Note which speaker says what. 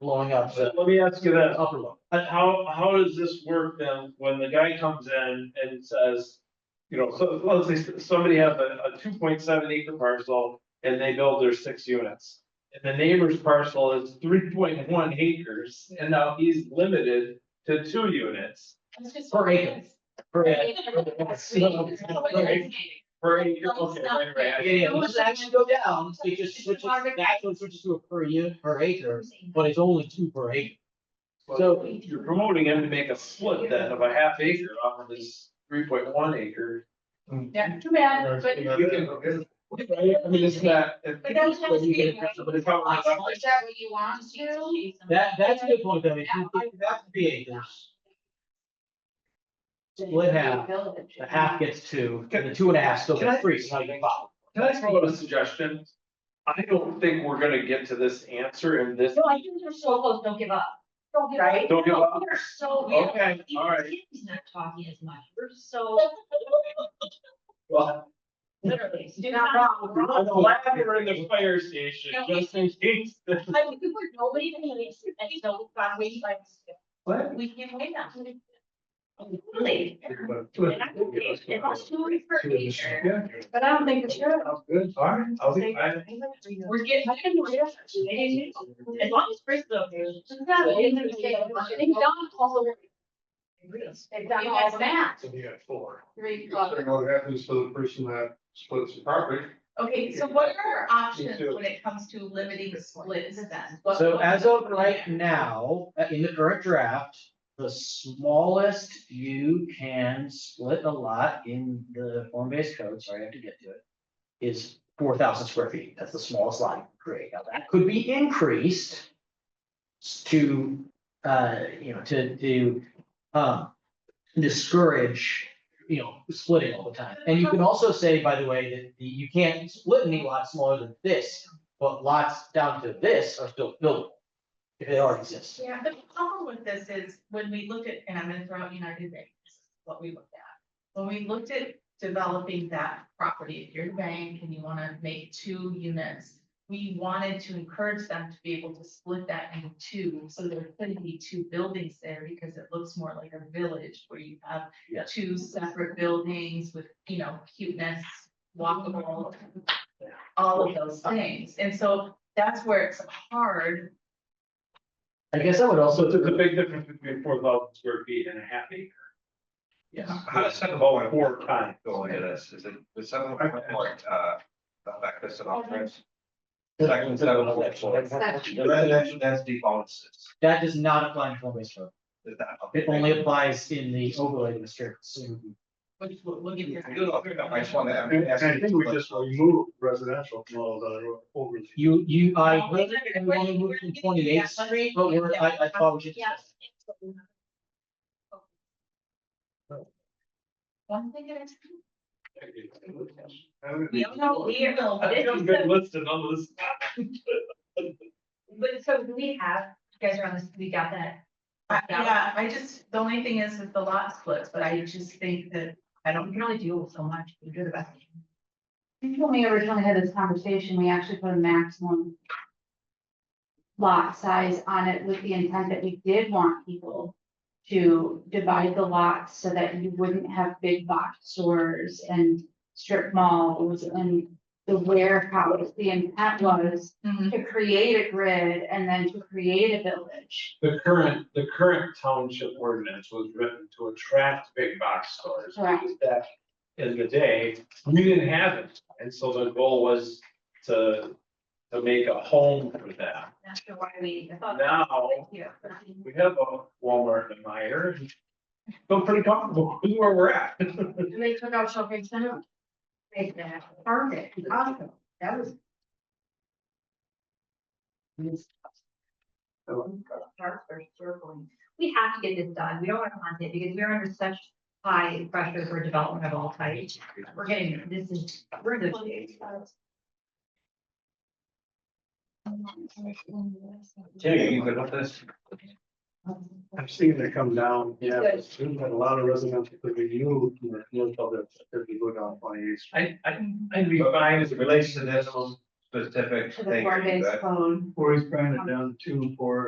Speaker 1: blowing up the
Speaker 2: Let me ask you this,
Speaker 1: upper one.
Speaker 2: Uh, how, how does this work then, when the guy comes in and says, you know, so, let's say s- somebody has a, a two point seven acre parcel and they build their six units. And the neighbor's parcel is three point one acres, and now he's limited to two units
Speaker 3: It's just-
Speaker 1: Per acre.
Speaker 3: Right.
Speaker 1: So-
Speaker 2: per acre.
Speaker 3: No, it's
Speaker 2: Okay,
Speaker 3: not.
Speaker 2: right, right.
Speaker 1: Yeah, yeah, it doesn't actually go down, it just switches, that's what switches to a per unit, per acre, but it's only two per acre.
Speaker 2: So you're promoting him to make a split then of a half acre off of this three point one acre.
Speaker 3: Yeah, too bad, but.
Speaker 2: We can- Right, I mean, it's not. it-
Speaker 3: But that's how it's being, right?
Speaker 2: But it's probably not.
Speaker 3: Is that what you want to?
Speaker 1: That, that's a good point, though, if you think that could be acres, split half, the half gets two, and the two and a half still gets three, so now you get five.
Speaker 2: Can I throw out a suggestion? I don't think we're gonna get to this answer in this.
Speaker 4: No, I think they're so close, don't give up. Don't give up.
Speaker 3: Right?
Speaker 2: Don't give up.
Speaker 4: They're so.
Speaker 2: Okay, all right.
Speaker 4: He's not talking as much, we're so
Speaker 2: Well,
Speaker 4: literally, do
Speaker 3: not
Speaker 4: not
Speaker 3: wrong.
Speaker 4: wrong.
Speaker 2: I'm glad we're in the fire station, just in case.
Speaker 4: I mean, we were nobody to me, and so found ways like.
Speaker 2: What?
Speaker 4: We can win them. Really? And I think it's it's too many for nature.
Speaker 2: Yeah.
Speaker 3: But I don't think it's good.
Speaker 2: Sounds good, all right, I'll be, I,
Speaker 4: We're getting, I think we're just- As long as Bristol. Just that.
Speaker 3: Well,
Speaker 4: it's
Speaker 3: it's
Speaker 4: okay.
Speaker 3: okay.
Speaker 4: They've done all the. They've done
Speaker 3: You
Speaker 4: all
Speaker 3: guys
Speaker 4: the
Speaker 3: match.
Speaker 4: math.
Speaker 5: So you got four.
Speaker 3: Three o'clock.
Speaker 5: Considering what happens to the person that splits the property.
Speaker 3: Okay, so what are our options when it comes to limiting splits then? What-
Speaker 1: So
Speaker 3: what-
Speaker 1: as of right now, uh, in the current draft, the smallest you can split a lot in the form-based code, sorry, I have to get to it. Is four thousand square feet, that's the smallest lot you can create, now that could be increased. To, uh, you know, to, to, um, discourage, you know, splitting all the time. And you can also say, by the way, that the- you can't split any lot smaller than this, but lots down to this are still buildable. If they already exist.
Speaker 3: Yeah, the problem with this is when we looked at, and I'm gonna throw out United Bank, this is what we looked at. When we looked at developing that property, if you're a bank and you wanna make two units. We wanted to encourage them to be able to split that into two, so there couldn't be two buildings there because it looks more like a village where you have.
Speaker 1: Yes.
Speaker 3: Two separate buildings with, you know, cuteness, walkable. All of those things, and so that's where it's hard
Speaker 1: I guess I would also,
Speaker 2: so there's a big difference between four thousand square feet and a half acre.
Speaker 1: yeah,
Speaker 6: How does second ball and
Speaker 2: Four
Speaker 6: four
Speaker 2: times.
Speaker 6: go into this? Is it, the seven point one, uh, not back this and off, right? Section seven point four. The residential density bonuses,
Speaker 1: that does not apply in form based code.
Speaker 6: is that?
Speaker 1: It only applies in the overlay district. So
Speaker 3: Which we'll, we'll give you.
Speaker 6: I do know, I just wanna- I'm
Speaker 5: And
Speaker 6: asking-
Speaker 5: I think we just remove residential from all the overlay.
Speaker 1: you, you, I, we only moved from twenty eighth street, but we're, I, I thought we should.
Speaker 4: Yes.
Speaker 3: One thing at a time.
Speaker 4: We don't know, we are.
Speaker 2: I've got a good list of numbers.
Speaker 4: But so do we have, you guys are on this, we got that.
Speaker 3: I- Yeah, I just, the only thing is with the lot splits, but I just think that I don't really do so much, we do the best.
Speaker 7: When we originally had this conversation, we actually put a maximum lot size on it with the intent that we did want people to divide the lots so that you wouldn't have big box stores and strip malls and the warehouse. The intent was
Speaker 4: Mm-hmm.
Speaker 7: to create a grid and then to create a village.
Speaker 2: The current, the current township ordinance was written to attract big box stores.
Speaker 7: Right.
Speaker 2: because Back in the day, we didn't have it, and so the goal was to, to make a home for them.
Speaker 4: Not sure why we I thought.
Speaker 2: Now,
Speaker 4: Yeah.
Speaker 2: we have a Walmart and Meyer, and feel pretty comfortable with where we're at.
Speaker 4: They took out shopping center. Made that perfect, awesome, that was. Parks are circling. We have to get this done, we don't want to hunt it because we're under such high pressure for development of all types. We're getting, this is, we're in the.
Speaker 6: Timmy, you good with this?
Speaker 5: I've seen it come down, yeah, there's been a lot of residential that we knew, you know, commercial that that we go down twenty eighth.
Speaker 2: I, I, I'd be fine as
Speaker 6: As
Speaker 2: a
Speaker 6: it relates to
Speaker 2: relation
Speaker 6: this specific
Speaker 7: To
Speaker 6: thing.
Speaker 7: the
Speaker 6: are you
Speaker 7: four-based
Speaker 6: good?
Speaker 7: code.
Speaker 5: Or he's bringing it down to two, four,